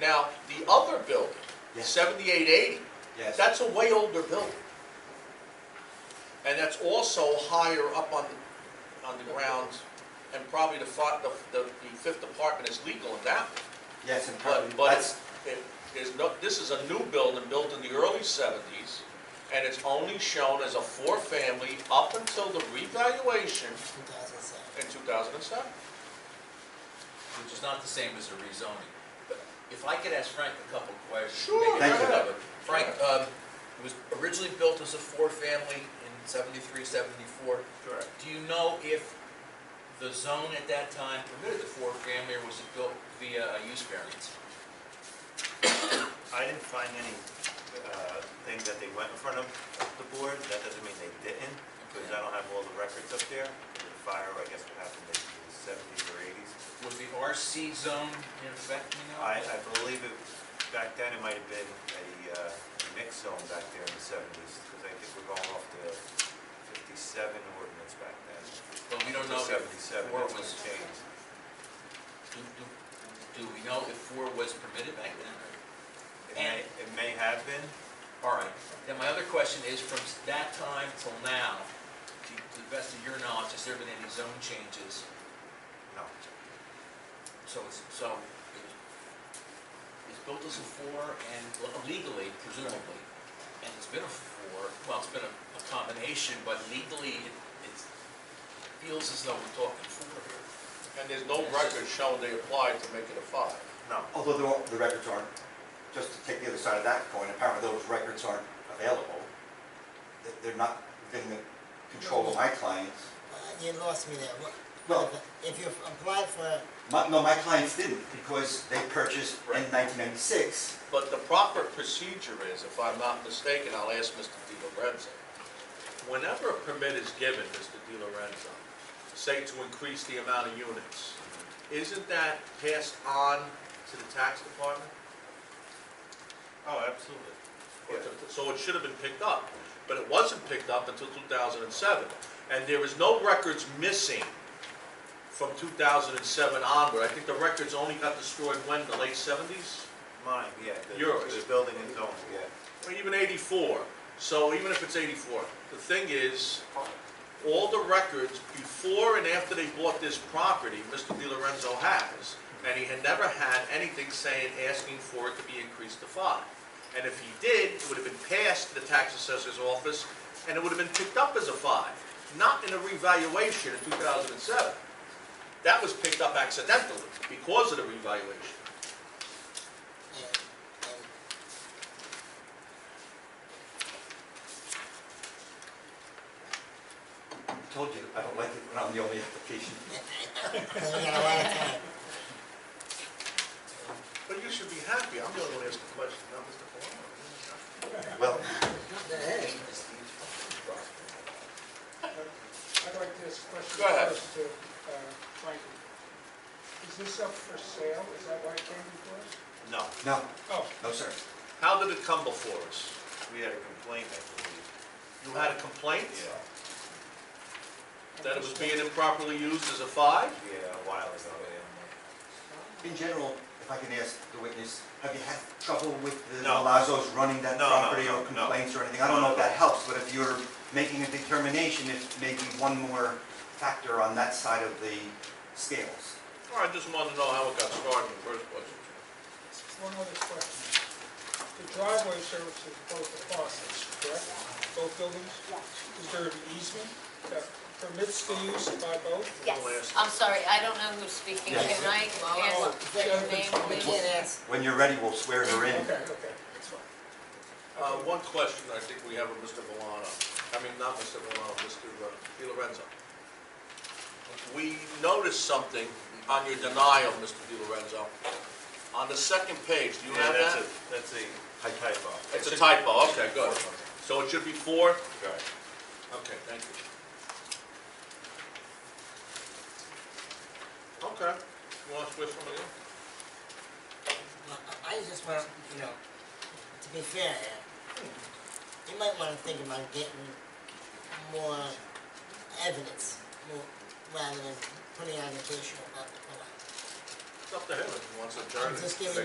Now, the other building, Yes. seventy-eight eighty, Yes. that's a way older building. And that's also higher up on, the on the ground, and probably the fi, the, the the fifth apartment is legal in that. one. Yes, and But, probably, but that's, it's, it, there's no, this is a new building, built in the early seventies, and it's only shown as a four-family up until the revaluation 2007. in two thousand and seven. which is not the same as a rezoning. But If I could ask Frank a couple of questions. Sure, maybe Thank Frank you. would. Frank, um, it was originally built as a four-family in seventy-three, seventy-four. Correct. Do you know if the zone at that time permitted the four-family, or was it built via a use variance? I didn't find any uh, things that they went in front of the board, that doesn't mean they didn't, because I don't have all the records up there. The fire, I guess, what happened in the seventies or eighties. Was the RC zone in effect, you know? I, I believe it, back then, it might have been a uh, mixed zone back there in the seventies, because I think we're going off the fifty-seven ordinance back then. But we don't know if Seventy-seven, four that's when was, it changed. do, do, do we know if four was permitted back then? or- It may, it may have been, All right, then my other question is, from that time till now, to to the best of your knowledge, has there been any zone changes? no, So it's, so it was- it's built as a four and well, legally, presumably, and it's been a four, well, it's been a a combination, but legally, it it's- feels as though we're talking four here. And there's no record showing they applied to make it a five. no. although there are- the records aren't, just to take the other side of that coin, apparently those records aren't available. They- They're not within the control of my clients. Uh, You lost me there. What- Well- If you apply for, My, no, my clients didn't, because they purchased in nineteen ninety-six. But the proper procedure is, if I'm not mistaken, I'll ask Mr. Di Lorenzo. Whenever a permit is given, Mr. Di Lorenzo, say to increase the amount of units, isn't that passed on to the tax department? Oh, absolutely. Or to- So it should have been picked up, but it wasn't picked up until 2007. And there is no records missing from 2007 onward. I think the records only got destroyed when, the late 70s? Mine, yeah. the- Yours. The building and zone, yeah. Or even 84. So even if it's 84, the thing is, all the records before and after they bought this property, Mr. Di Lorenzo has, and he had never had anything saying, asking for it to be increased to five. And if he did, it would have been passed to the tax assessor's office, and it would have been picked up as a five, not in a revaluation in 2007. That was picked up accidentally because of the revaluation. and, and I told you, I don't like it when I'm the only application. then we got a lot of time. But you should be happy, I'm the only one asking questions, not Mr. Palumbo. Well, I'd like to ask a question Go ahead. first to uh, Frankie. Is this up for sale? Is that why it came before us? No, no, Oh, no, sir. How did it come before us? we had a complaint, I believe. You had a complaint Yeah, that it was being improperly used as a five? yeah, a while ago, yeah. In general, if I can ask the witness, have you had trouble with the No. Malazos running that No, no, property or no, no. complaints or anything? I don't know if that helps, but if you're making a determination, it's maybe one more factor on that side of the scales. Or I just wanted to know how it got started in the first place. one other question. The driveway services both apartments, correct? Both buildings? Is there an easement that permits the use by both? Yes, I'm sorry, I don't know who's speaking. Yes. Can I Oh, ask that your name, yeah. We please? can't ask. When you're ready, we'll swear her in. Okay, okay, that's fine. Uh, one question I think we have of Mr. Valano, I mean, not Mr. Valano, Mr. uh, Di Lorenzo. We noticed something on your denial, Mr. Di Lorenzo. On the second page, do you Yeah, have that's that? a- That's a high typo. It's a typo, okay, good. So it should be four? Right. Okay, thank you. Okay, you want to switch somebody else? I I just want, you know, to be fair here, you might want to think about getting more evidence, more, rather than putting out an additional about the It's up to him if he wants to adjourn. I'm it. just giving